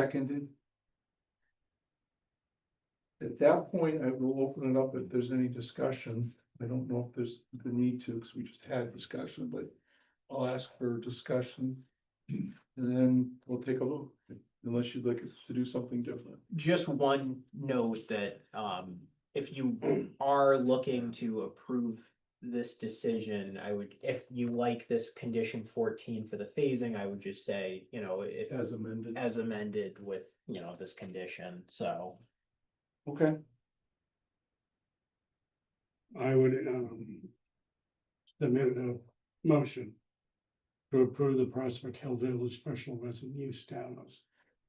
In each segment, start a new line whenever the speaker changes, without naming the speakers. Seconded. At that point, I will open it up if there's any discussion. I don't know if there's the need to, because we just had discussion, but I'll ask for discussion. And then we'll take a look, unless you'd like us to do something different.
Just one note that, um, if you are looking to approve this decision, I would, if you like this condition fourteen for the phasing, I would just say, you know, if,
As amended.
as amended with, you know, this condition, so.
Okay,
I would, um, submit a motion to approve the Prospect Hill Village Special Resident Use Townhouse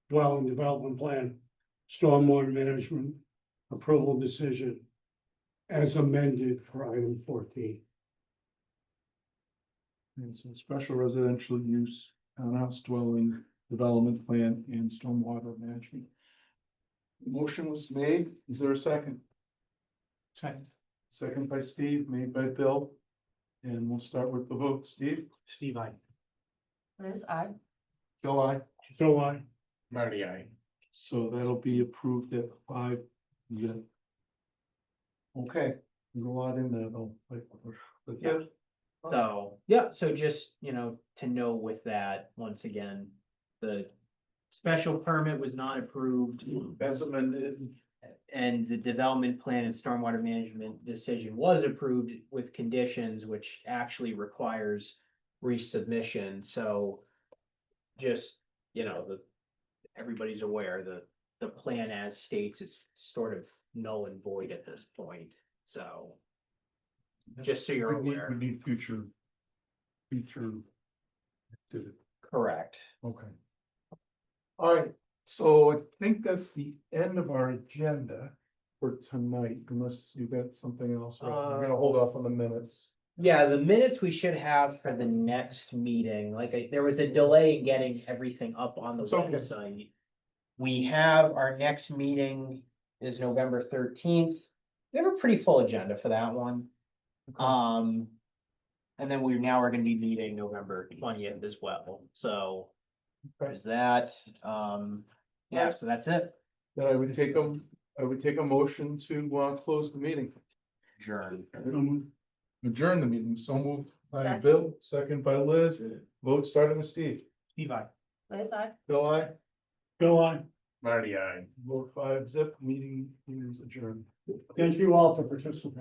Dwelling Development Plan, Stormwater Management Approval Decision as amended for item fourteen.
and so special residential use, townhouse dwelling, development plan and stormwater management. Motion was made. Is there a second?
Second.
Second by Steve, made by Bill. And we'll start with the vote. Steve?
Steve, I.
Liz, I,
Bill, I.
So I,
Marty, I.
So that'll be approved at five zip. Okay, there's a lot in there though. like, That's it.
So, yeah, so just, you know, to know with that, once again, the special permit was not approved.
As amended,
And the development plan and stormwater management decision was approved with conditions, which actually requires resubmission, so. Just, you know, the, everybody's aware, the, the plan as states is sort of null and void at this point, so. Just so you're
we need, we
aware,
need future. Future. activity.
correct.
Okay. All right, so I think that's the end of our agenda for tonight, unless you got something else. We're gonna hold off on the minutes.
Yeah, the minutes we should have for the next meeting, like, I- there was a delay in getting everything up on the
It's okay.
website. We have, our next meeting is November thirteenth. We have a pretty full agenda for that one. Um, and then we now are gonna be meeting November twentieth as well, so
Okay.
there's that. Um, yeah, so that's it.
Then I would take them, I would take a motion to, uh, close the meeting.
Adjourn.
Adjourn the meeting, so moved by
Second.
Bill, second by Liz, vote starting with Steve.
Steve, I.
Liz, I.
Bill, I,
go on.
vote five zip, meeting is adjourned.
Thank you all for participating.